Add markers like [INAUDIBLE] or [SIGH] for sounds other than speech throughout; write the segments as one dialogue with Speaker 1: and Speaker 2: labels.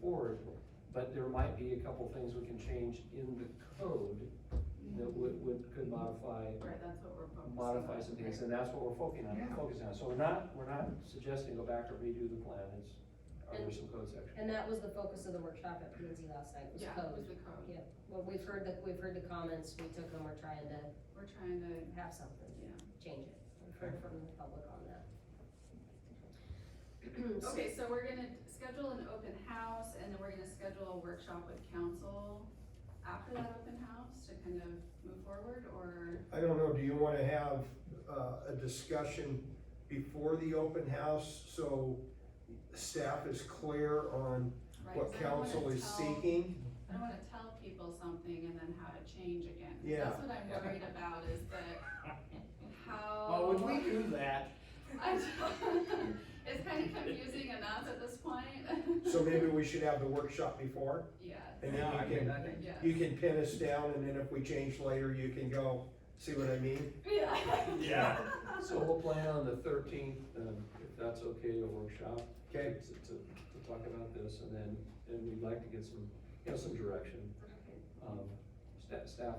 Speaker 1: forward, but there might be a couple things we can change in the code that would, would, could modify,
Speaker 2: Right, that's what we're focusing on.
Speaker 1: modify some things, and that's what we're focusing on,
Speaker 3: Yeah.
Speaker 1: focusing on. So we're not, we're not suggesting go back to redo the plan, it's, are there
Speaker 4: And-
Speaker 1: some code sections?
Speaker 4: And that was the focus of the workshop at P and Z last night, was
Speaker 2: Yeah,
Speaker 4: code.
Speaker 2: it's the code,
Speaker 4: Well, we've heard the, we've heard the comments, we took them, we're trying to
Speaker 2: we're trying to,
Speaker 4: have something,
Speaker 2: yeah.
Speaker 4: change it. We've heard from the public on
Speaker 2: [CLEARS THROAT] Oh,
Speaker 4: that. So-
Speaker 2: Okay, so we're gonna schedule an open house, and then we're gonna schedule a workshop with council after that open house to kind of move forward, or?
Speaker 5: I don't know, do you wanna have, uh, a discussion before the open house, so staff is clear on
Speaker 2: right,
Speaker 5: what
Speaker 2: 'cause I don't wanna
Speaker 5: council is
Speaker 2: tell-
Speaker 5: seeking?
Speaker 2: I don't wanna tell people something and then how to change again. 'Cause
Speaker 5: Yeah.
Speaker 2: That's what I'm worried about, is that how.
Speaker 3: Oh, would we do that?
Speaker 2: [LAUGHS] I don't- It's kind of confusing enough at this point.
Speaker 5: So maybe we should have the workshop before,
Speaker 2: [LAUGHS] Yeah,
Speaker 5: and then
Speaker 3: I
Speaker 5: you
Speaker 3: mean,
Speaker 5: can,
Speaker 3: I think-
Speaker 2: yeah.
Speaker 5: you can pin us down, and then if we change later, you can go, see what I mean?
Speaker 2: [LAUGHS] Yeah.
Speaker 3: Yeah.
Speaker 1: So we'll plan on the thirteenth, um, if that's okay, a workshop.
Speaker 5: Okay.
Speaker 1: To, to, to talk about this, and then, and we'd like to get some, you know, some direction, um, staff, staff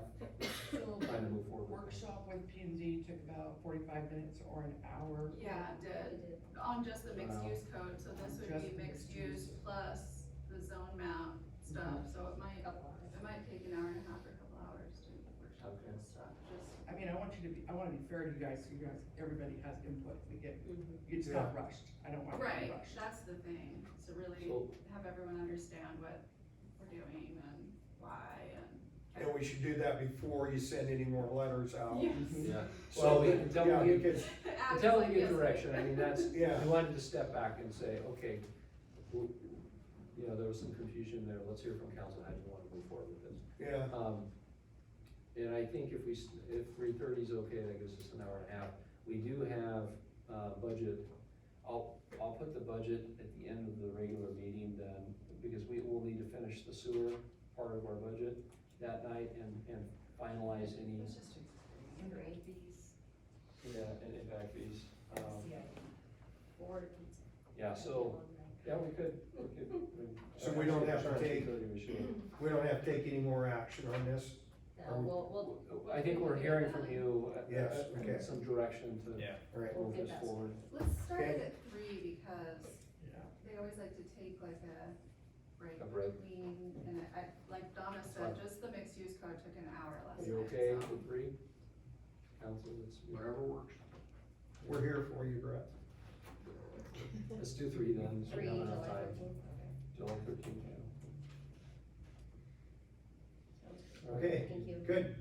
Speaker 6: So
Speaker 1: trying to move
Speaker 6: the
Speaker 1: forward.
Speaker 6: workshop with P and Z took about forty-five minutes or an hour.
Speaker 2: Yeah, it
Speaker 4: We
Speaker 2: did.
Speaker 4: did.
Speaker 2: On just the mixed use code, so this would
Speaker 6: Just
Speaker 2: be
Speaker 6: the
Speaker 2: mixed
Speaker 6: mixed
Speaker 2: use
Speaker 6: use.
Speaker 2: plus the zone map stuff, so it might, it might take an hour and a half or a couple hours to workshop
Speaker 1: Okay.
Speaker 2: that stuff, just,
Speaker 6: I mean, I want you to be, I wanna be fair to you guys, so you guys, everybody has input, we get,
Speaker 4: Mhm.
Speaker 6: it's not rushed, I don't want it to be
Speaker 2: right,
Speaker 6: rushed.
Speaker 2: that's the thing, to really
Speaker 1: So-
Speaker 2: have everyone understand what we're doing and why and.
Speaker 5: And we should do that before you send any more letters out.
Speaker 2: Yes. [LAUGHS]
Speaker 3: Yeah.
Speaker 1: Well,
Speaker 5: So, we-
Speaker 1: until
Speaker 5: yeah,
Speaker 1: we-
Speaker 5: because
Speaker 2: Act
Speaker 1: Until
Speaker 2: like
Speaker 1: we get
Speaker 2: yes.
Speaker 1: direction, I mean, that's,
Speaker 2: [LAUGHS]
Speaker 1: we
Speaker 5: Yeah.
Speaker 1: wanted to step back and say, okay, w- you know, there was some confusion there, let's hear from council, how do you wanna move forward with this?
Speaker 5: Yeah,
Speaker 1: Um, and I think if we, s- if three thirty is okay, that gives us an hour and a half. We do have, uh, budget, I'll, I'll put the budget at the end of the regular meeting then, because we will need to finish the sewer part of our budget that night and, and finalize any,
Speaker 6: Let's just
Speaker 4: Great.
Speaker 1: yeah, and impact uh, fees. Um,
Speaker 4: Yeah. Or pizza.
Speaker 1: yeah, so, yeah, we could, we could. we-
Speaker 5: So we don't have to
Speaker 1: Actually,
Speaker 5: take-
Speaker 1: 3:30 we should.
Speaker 5: we don't have to take any more action on this.
Speaker 4: No, we'll,
Speaker 1: um,
Speaker 4: we'll,
Speaker 1: I think we're hearing from you. uh,
Speaker 5: Yes,
Speaker 1: uh,
Speaker 5: okay.
Speaker 1: Some direction to
Speaker 3: Yeah.
Speaker 5: All right,
Speaker 1: move
Speaker 4: Get
Speaker 1: this
Speaker 4: that.
Speaker 1: forward.
Speaker 2: Let's start it
Speaker 5: Okay.
Speaker 2: at three, because
Speaker 3: Yeah.
Speaker 2: they always like to take like a break
Speaker 1: A break.
Speaker 2: between, and I, like Donna said, just the mixed use code took an hour last
Speaker 1: Are
Speaker 2: night.
Speaker 1: you okay
Speaker 2: so-
Speaker 1: with three? Council, it's whatever works.
Speaker 5: we're here for you, Brett.
Speaker 1: Let's do three then, so we
Speaker 4: three,
Speaker 1: have
Speaker 4: July
Speaker 1: enough time.
Speaker 4: thirteenth,
Speaker 1: July thirteenth, yeah.
Speaker 4: okay.
Speaker 1: All right.
Speaker 5: Okay,
Speaker 4: Thank you.
Speaker 5: good.